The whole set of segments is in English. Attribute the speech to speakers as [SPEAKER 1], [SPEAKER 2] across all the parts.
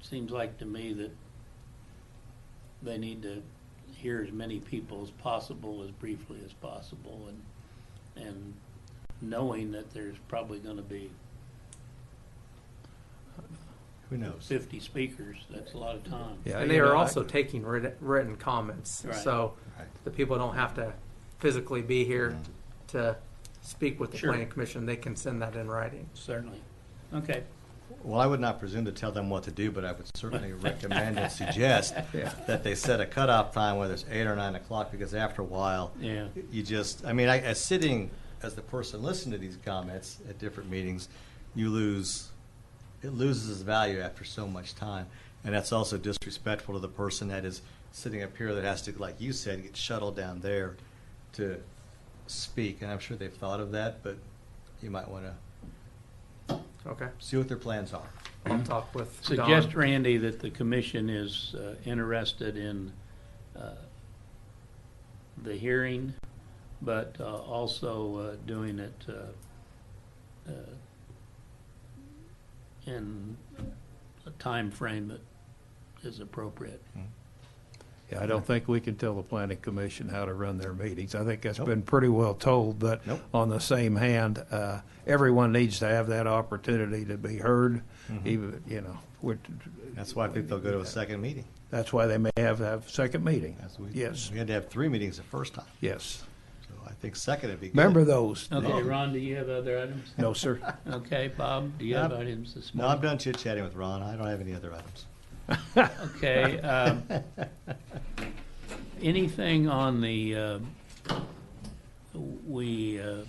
[SPEAKER 1] seems like to me that they need to hear as many people as possible, as briefly as possible, and, and knowing that there's probably gonna be
[SPEAKER 2] Who knows?
[SPEAKER 1] fifty speakers, that's a lot of time.
[SPEAKER 2] Yeah,
[SPEAKER 3] And
[SPEAKER 2] you
[SPEAKER 3] they
[SPEAKER 2] know,
[SPEAKER 3] are
[SPEAKER 2] I-
[SPEAKER 3] also taking writ- written comments,
[SPEAKER 1] Right.
[SPEAKER 3] so
[SPEAKER 2] Right.
[SPEAKER 3] the people don't have to physically be here
[SPEAKER 2] Mm-hmm.
[SPEAKER 3] to speak with the
[SPEAKER 1] Sure.
[SPEAKER 3] planning commission. They can send that in writing.
[SPEAKER 1] Certainly. Okay,
[SPEAKER 2] Well, I would not presume to tell them what to do, but I would certainly recommend and suggest
[SPEAKER 3] Yeah.
[SPEAKER 2] that they set a cutoff time, whether it's eight or nine o'clock, because after a while,
[SPEAKER 1] yeah,
[SPEAKER 2] you just, I mean, I, as sitting, as the person listening to these comments at different meetings, you lose, it loses its value after so much time. And that's also disrespectful to the person that is sitting up here that has to, like you said, get shuttled down there to speak. And I'm sure they've thought of that, but you might want to
[SPEAKER 3] Okay,
[SPEAKER 2] see what their plans are.
[SPEAKER 3] I'll talk with Don.
[SPEAKER 1] suggest, Randy, that the commission is uh, interested in uh, the hearing, but uh, also uh, doing it uh, uh, in a time frame that is appropriate.
[SPEAKER 4] Yeah, I don't think we can tell the planning commission how to run their meetings. I think that's
[SPEAKER 2] Nope.
[SPEAKER 4] been pretty well told, but
[SPEAKER 2] Nope.
[SPEAKER 4] on the same hand, uh, everyone needs to have that opportunity to be heard,
[SPEAKER 2] Mm-hmm.
[SPEAKER 4] even, you know, we're-
[SPEAKER 2] That's why people go to a second meeting.
[SPEAKER 4] that's why they may have, have second meeting.
[SPEAKER 2] That's what we-
[SPEAKER 4] Yes,
[SPEAKER 2] We had to have three meetings the first time.
[SPEAKER 4] yes.
[SPEAKER 2] So I think second would be good.
[SPEAKER 4] Remember those?
[SPEAKER 1] Okay, Ron, do you have other items?
[SPEAKER 4] No, sir.
[SPEAKER 1] Okay, Bob, do you have
[SPEAKER 2] Yep.
[SPEAKER 1] items this
[SPEAKER 2] No, I'm
[SPEAKER 1] morning?
[SPEAKER 2] done chit chatting with Ron. I don't have any other items.
[SPEAKER 1] Okay, um, anything on the, uh, we uh,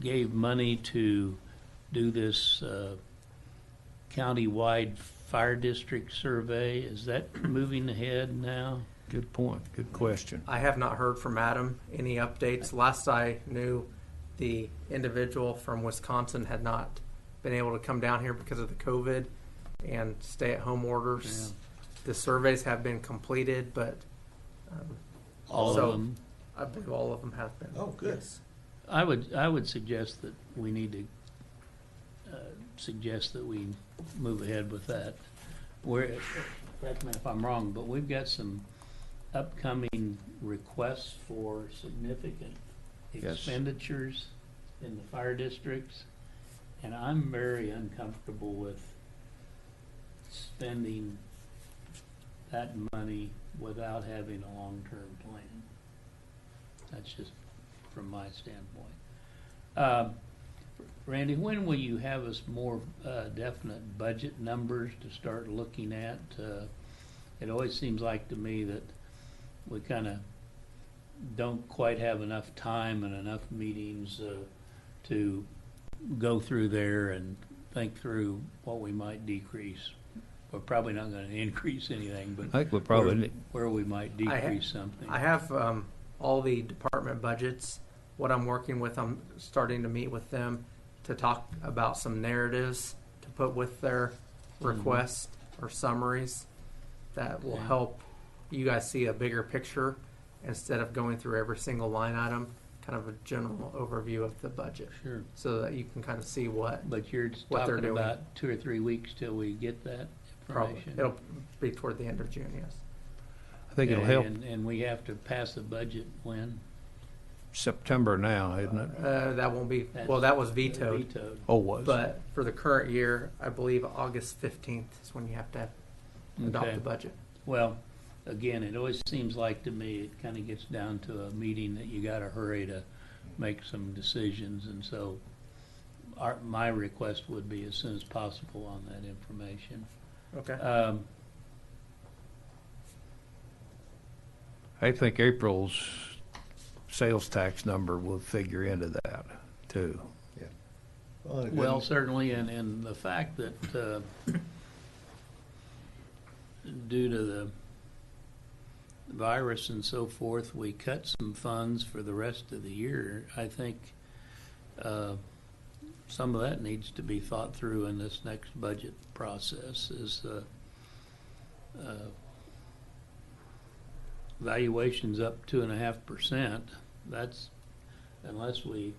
[SPEAKER 1] gave money to do this uh, countywide fire district survey, is that moving ahead now?
[SPEAKER 4] Good point, good question.
[SPEAKER 3] I have not heard from Adam any updates. Last I knew, the individual from Wisconsin had not been able to come down here because of the COVID and stay-at-home orders. The surveys have been completed, but um,
[SPEAKER 1] All
[SPEAKER 3] So-
[SPEAKER 1] of them?
[SPEAKER 3] I believe all of them have been.
[SPEAKER 2] Oh, good.
[SPEAKER 3] Yes.
[SPEAKER 1] I would, I would suggest that we need to uh, suggest that we move ahead with that. We're, correct me if I'm wrong, but we've got some upcoming requests for significant
[SPEAKER 4] Yes.
[SPEAKER 1] expenditures in the fire districts. And I'm very uncomfortable with spending that money without having a long-term plan. That's just from my standpoint. Um, Randy, when will you have us more uh, definite budget numbers to start looking at? Uh, It always seems like to me that we kind of don't quite have enough time and enough meetings uh, to go through there and think through what we might decrease. We're probably not going to increase anything,
[SPEAKER 4] I
[SPEAKER 1] but
[SPEAKER 4] think we probably, need-
[SPEAKER 1] where we might
[SPEAKER 3] I ha-
[SPEAKER 1] decrease something.
[SPEAKER 3] I have um, all the department budgets. What I'm working with, I'm starting to meet with them to talk about some narratives to put with their requests or summaries that will
[SPEAKER 1] Hmm. Okay.
[SPEAKER 3] help you guys see a bigger picture instead of going through every single line item, kind of a general overview of the budget
[SPEAKER 1] Sure.
[SPEAKER 3] so that you can kind of see what
[SPEAKER 1] But you're
[SPEAKER 3] What they're
[SPEAKER 1] talking
[SPEAKER 3] doing.
[SPEAKER 1] about two or three weeks till we get that
[SPEAKER 3] probably
[SPEAKER 1] information?
[SPEAKER 3] it'll be toward the end of June, yes.
[SPEAKER 4] I think it'll help
[SPEAKER 1] And, and we have to pass the budget when?
[SPEAKER 4] September now, isn't it?
[SPEAKER 3] Uh, that won't be, well,
[SPEAKER 1] That's-
[SPEAKER 3] that was vetoed.
[SPEAKER 1] Vetoed.
[SPEAKER 4] Oh, was.
[SPEAKER 3] But for the current year, I believe August fifteenth is when you have to adopt
[SPEAKER 1] Okay.
[SPEAKER 3] the budget.
[SPEAKER 1] Well, again, it always seems like to me, it kind of gets down to a meeting that you gotta hurry to make some decisions, and so our, my request would be as soon as possible on that information.
[SPEAKER 3] Okay.
[SPEAKER 1] Um,
[SPEAKER 4] I think April's sales tax number will figure into that, too.
[SPEAKER 2] Well, it
[SPEAKER 1] Well,
[SPEAKER 2] didn't-
[SPEAKER 1] certainly, and, and the fact that, uh, due to the virus and so forth, we cut some funds for the rest of the year, I think, uh, some of that needs to be thought through in this next budget process is, uh, uh, valuation's up two and a half percent. That's unless we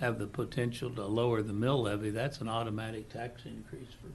[SPEAKER 1] have the potential to lower the mill levy, that's an automatic tax increase for people.